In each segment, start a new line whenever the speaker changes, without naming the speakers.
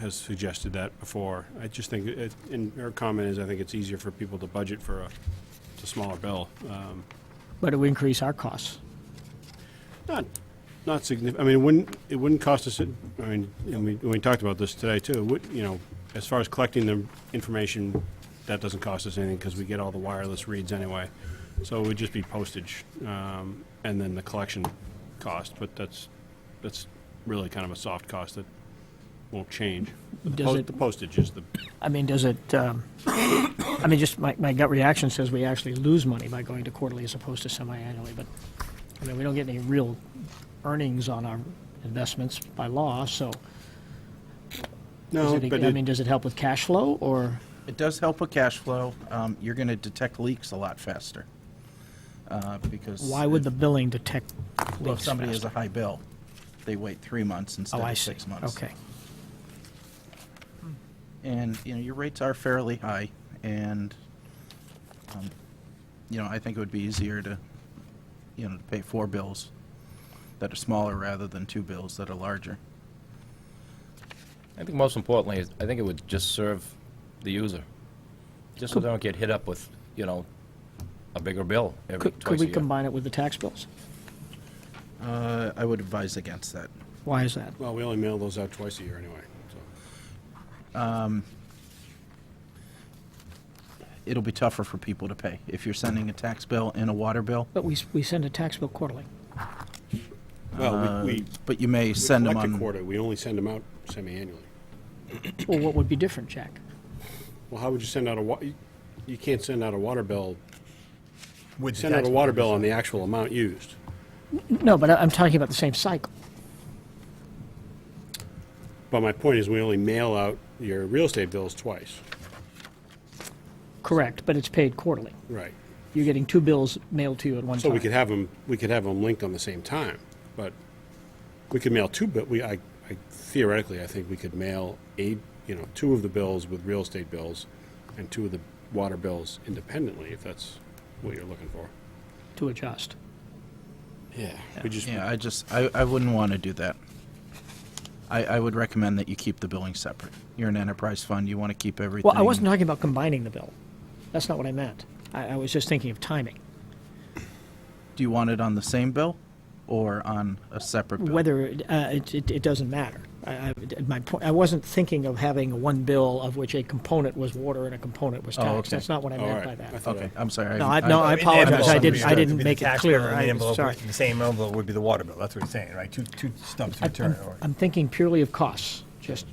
has suggested that before. I just think, it- and her comment is, I think it's easier for people to budget for a, it's a smaller bill. Um,
but it would increase our costs.
Not, not significant, I mean, it wouldn't, it wouldn't cost us, I mean, and we, we talked about this today too, it would, you know, as far as collecting the information, that doesn't cost us anything because we get all the wireless reads anyway. So it would just be postage, um, and then the collection cost, but that's, that's really kind of a soft cost that won't change. But The
Does
po-
it-
the postage is the,
I mean, does it, um, I mean, just my, my gut reaction says we actually lose money by going to quarterly as opposed to semi-annually, but, I mean, we don't get any real earnings on our investments by law, so. is
no,
it-
but
I
it-
mean, does it help with cash flow, or,
It does help with cash flow. Um, You're going to detect leaks a lot faster. uh, Because.
why would
if-
the billing detect
Well, if
leaks
somebody has
faster?
a high bill, they wait three months instead
Oh, I
of
see,
six months.
okay.
And, you know, your rates are fairly high, and, um, you know, I think it would be easier to, you know, to pay four bills that are smaller rather than two bills that are larger.
I think most importantly, is I think it would just serve the user, just so they don't get hit up with, you know, a bigger bill every
Could, could
twice a
we
year.
combine it with the tax bills?
Uh, I would advise against that.
Why is that?
well, we only mail those out twice a year anyway, so.
It'll be tougher for people to pay. If you're sending a tax bill and a water bill,
But we, s- we send a tax bill quarterly.
Well, we, we
but you may
we
Uh, send them
collect a
on.
quarter, we only send them out semi-annually.
Well, what would be different, Jack?
Well, how would you send out a wa, you- you can't send out a water bill,
With the
send out
tax
a water bill on the actual amount used.
No, but I- I'm talking about the same cycle.
But my point is, we only mail out your real estate bills twice.
Correct, but it's paid quarterly.
Right.
You're getting two bills mailed to you at one
So
time.
we could have them, we could have them linked on the same time, but we could mail two, but we, I, I theoretically, I think we could mail eight, you know, two of the bills with real estate bills and two of the water bills independently, if that's what you're looking for.
to adjust.
Yeah. We just,
Yeah, I just, I, I wouldn't want to do that. I, I would recommend that you keep the billing separate. You're an enterprise fund, you want to keep everything.
Well, I wasn't talking about combining the bill. That's not what I meant. I, I was just thinking of timing.
Do you want it on the same bill or on a separate bill?
Whether it- uh, it, it, it doesn't matter. I, I, my point, I wasn't thinking of having one bill of which a component was water and a component was
Oh,
tax.
okay.
That's not what I meant
right.
by
I
that.
thought-
Okay, I'm sorry.
No, I- no, I apologize. I didn't. I didn't
It'd be the
make it
tax
clear.
bill and the
I'm
envelope
sorry.
would- The same envelope would be the water bill, that's what he's saying, right? Two, two stubs
I-
return.
I'm,
or-
I'm thinking purely of costs. Just,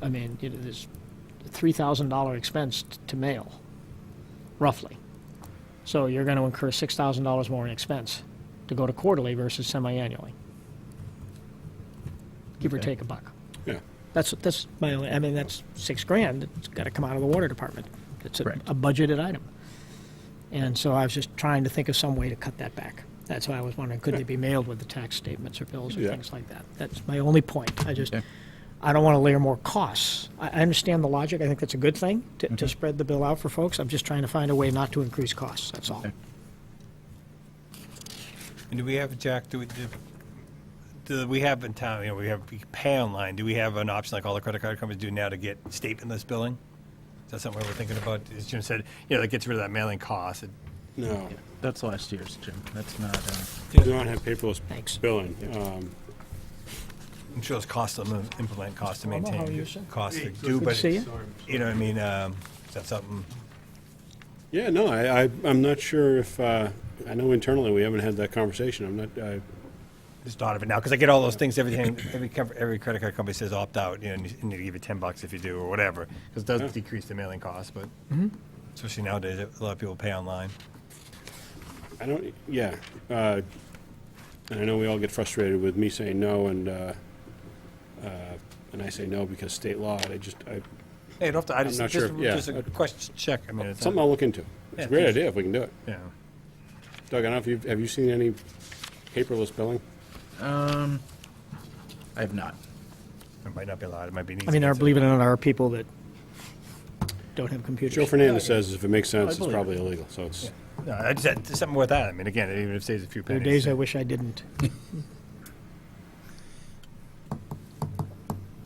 I mean, you know, there's three thousand dollar expense t- to mail, roughly. So you're going to incur six thousand dollars more in expense to go to quarterly versus semi-annually, give or
Okay.
take a buck.
yeah.
That's that's my only. I mean, that's six grand. It's got to come out of the water department. It's a,
Correct.
a budgeted item. And so I was just trying to think of some way to cut that back. That's why I was wondering, could they be mailed with the tax statements or bills or
Yeah.
things like that? That's my only point. I just,
Okay.
I don't want to layer more costs. I, I understand the logic. I think that's a good thing to,
Mm-hmm.
to spread the bill out for folks. I'm just trying to find a way not to increase costs. That's all.
Okay.
And do we have, Jack, do we, do- do we have in town, you know, we have we pay online, do we have an option like all the credit card companies do now to get statementless billing? Is that something we're thinking about? As Jim said, you know, that gets rid of that mailing cost. It-
No.
That's last year's, Jim. That's not, uh,
We don't have paperless
Thanks.
billing. Um,
I'm sure it's cost to im- implement, cost to
Well, no, how are you,
maintain,
sir?
cost to do,
to
but,
see you.
it's- you know, what I mean, um, is that something?
Yeah, no, I, I, I'm not sure if, uh, I know internally we haven't had that conversation. I'm not, I,
just thought of it now because I get all those things. Everything, every com- every credit card company says opt out, you know, and you and they give you ten bucks if you do or whatever, because it does decrease the mailing cost. But
Mm-hmm.
especially nowadays, a lot of people pay online.
I don't, yeah. Uh, and I know we all get frustrated with me saying no and, uh, uh, and I say no because state law, and I just, I,
Hey, you don't have to. I just,
not
just,
sure, yeah.
just a question check. I mean, it's
something I'll look into. It's
Yeah,
a great
please.
idea if we can do it.
yeah.
Doug, I don't know if you've, have you seen any paperless billing?
I have not.
It might not be allowed. It might be. An
I mean, there,
I
are- believe it or not, there are people that don't have computers.
Joe Fernandez says if it makes sense, it's
believe it.
probably illegal, so it's,
No, I just had something with that. I mean, again, it even if it saves a few
There are
pennies.
days I wish I didn't.